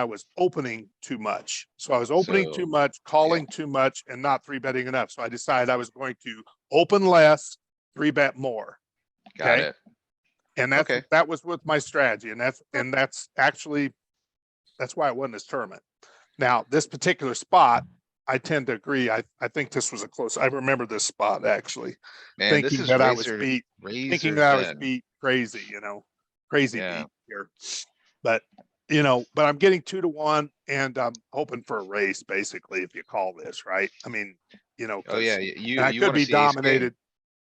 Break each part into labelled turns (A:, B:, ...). A: I was opening too much. So I was opening
B: So-
A: too much, calling too much and not three betting enough. So I decided I was going to open less, three bet more.
B: Got
A: Okay.
B: it.
A: And that's,
B: Okay.
A: that was with my strategy and that's, and that's actually, that's why I won this tournament. Now, this particular spot, I tend to agree. I, I think this was a close, I remember this spot actually,
B: Man, this
A: thinking
B: is
A: that I was
B: razor,
A: beat,
B: razor
A: thinking that I was
B: thin.
A: beat crazy, you know, crazy
B: Yeah.
A: beat here. But, you know, but I'm getting two to one and I'm hoping for a race basically, if you call this, right? I mean, you know.
B: Oh,
A: 'cause-
B: yeah, y- you,
A: and I
B: you
A: could
B: wanna
A: be
B: see ace king.
A: dominated.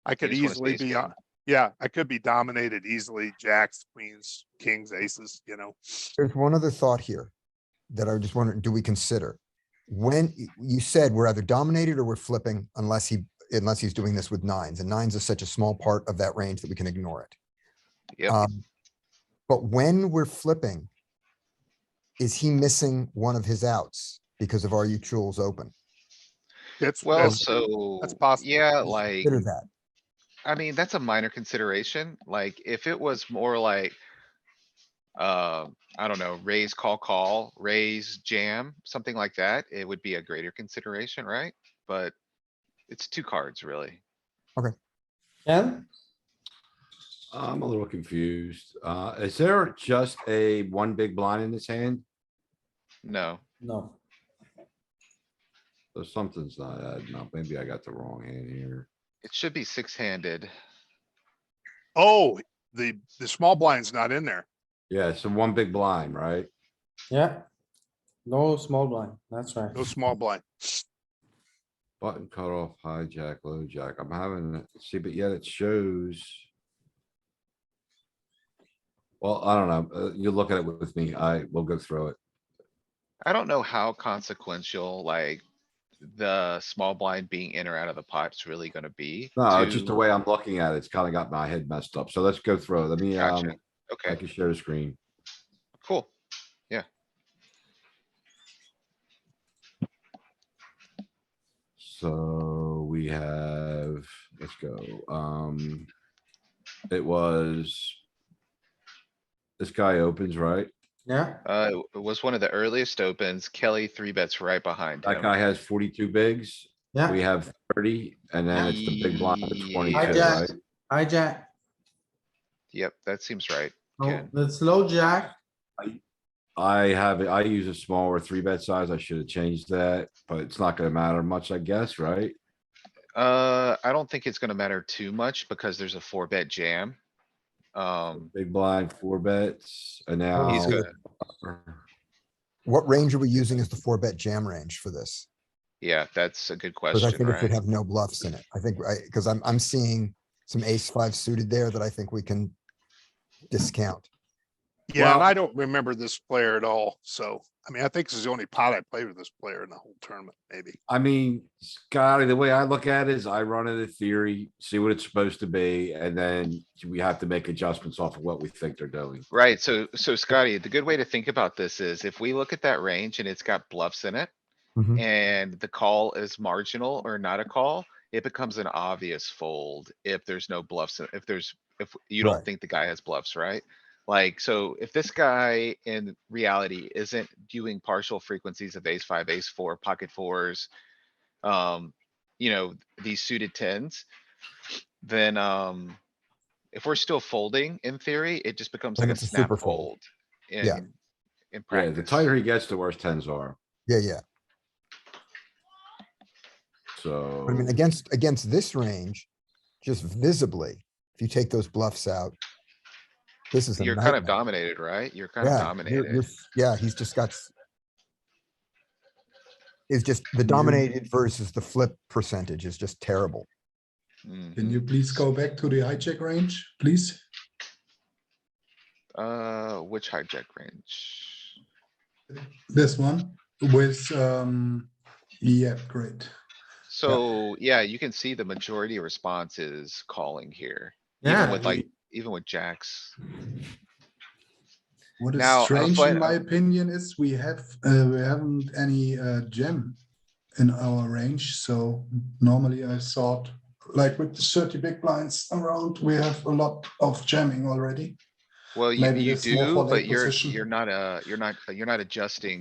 A: I could
B: just wanna see
A: easily
B: ace
A: be,
B: king.
A: on- yeah, I could be dominated easily, jacks, queens, kings, aces, you know.
C: There's one other thought here that I just wondered, do we consider? When y- you said we're either dominated or we're flipping unless he, unless he's doing this with nines and nines is such a small part of that range that we can ignore it.
B: Yep.
C: Um, But when we're flipping, is he missing one of his outs because of RU tools open?
A: It's,
B: Well,
A: it's-
B: so,
A: possible.
B: yeah, like,
C: Consider that.
B: I mean, that's a minor consideration. Like, if it was more like. Uh, I don't know, raise, call, call, raise, jam, something like that, it would be a greater consideration, right? But it's two cards, really.
D: Ken?
E: I'm a little confused. Uh, is there just a one big blind in this hand?
B: No,
D: No.
E: Or something's not adding up. Maybe I got the wrong hand here.
B: it should be six-handed.
A: oh, the, the small blind's not in there.
E: Yeah, it's a one big blind, right?
D: Yeah. No small blind. That's right.
A: No small blind.
E: Button cutoff, hijack, low jack. I'm having, a- see, but yet it shows. Well, I don't know. Uh, you look at it with me. I will go through it.
B: I don't know how consequential, like. The small blind being in or out of the pot's really gonna be.
E: No, just the
B: to-
E: way I'm looking at it, it's kind of got my head messed up. So let's go through. it. Let me, um,
B: Gotcha.
E: I
B: Okay,
E: can share the screen.
B: cool.
E: So we have, let's go, um. It was. This guy opens, right?
D: Yeah,
B: Uh, it was one of the earliest opens. Kelly three bets right behind
E: That
B: him.
E: guy has forty-two bigs. We
D: yeah.
E: have thirty and then it's the big blind at twenty-two,
D: Hijack.
E: right?
D: Hijack.
B: Yep, that seems right.
D: No,
B: Ken.
D: it's low jack.
E: I have, I use a smaller three bet size. I should have changed that, but it's not gonna matter much, I guess, right?
B: Uh, I don't think it's gonna matter too much because there's a four bet jam. Um,
E: Big blind, four bets, and now.
B: he's
C: Oh.
B: good.
C: What range are we using as the four bet jam range for this?
B: Yeah, that's a good
C: Because I
B: question,
C: think it should
B: right?
C: have no bluffs in it. I think, I because I'm, I'm seeing some ace five suited there that I think we can discount.
A: Yeah, and
E: Well-
A: I don't remember this player at all. So, I mean, I think this is the only pot I played with this player in the whole tournament, maybe.
E: I mean, Scotty, the way I look at it is I run it a theory, see what it's supposed to be, and then we have to make adjustments off of what we think they're doing.
B: Right, so, so Scotty, the good way to think about this is if we look at that range and it's got bluffs in it.
C: Mhm.
B: And the call is marginal or not a call, it becomes an obvious fold if there's no bluffs, in- if there's, if you don't
C: Right.
B: think the guy has bluffs, right? Like, so if this guy in reality isn't doing partial frequencies of ace five, ace four, pocket fours. Um, you know, these suited tens, then, um. If we're still folding in theory, it just becomes
C: Then
B: like a
C: it's a
B: snap
C: super
B: fold.
C: fold.
B: In,
C: Yeah.
B: in
E: Right, the
B: practice.
E: tighter he gets, the worse tens are,
C: Yeah, yeah.
E: so.
C: But I mean, against, against this range, just visibly, if you take those bluffs out, this is a
B: You're kind of
C: nightmare.
B: dominated, right? You're kind of
C: Yeah, you're-
B: dominated.
C: you're- Yeah, he's just got s- is just the dominated versus the flip percentage is just terrible.
F: Can
B: Mhm.
F: you please go back to the hijack range, please?
B: Uh, which hijack range?
F: This one with, um, yeah, great.
B: So, yeah, you can see the majority of response is calling here, even
D: Yeah,
B: with like, even with jacks.
F: What is
B: Now, I
F: strange
B: find-
F: in my opinion is we have, uh, we haven't any, uh, gem in our range, so normally I thought, like with the thirty big blinds around, we have a lot of jamming already.
B: Well, you,
F: Maybe
B: you
F: it's more
B: do,
F: for the
B: but you're,
F: position.
B: you're not, uh, you're not, you're not adjusting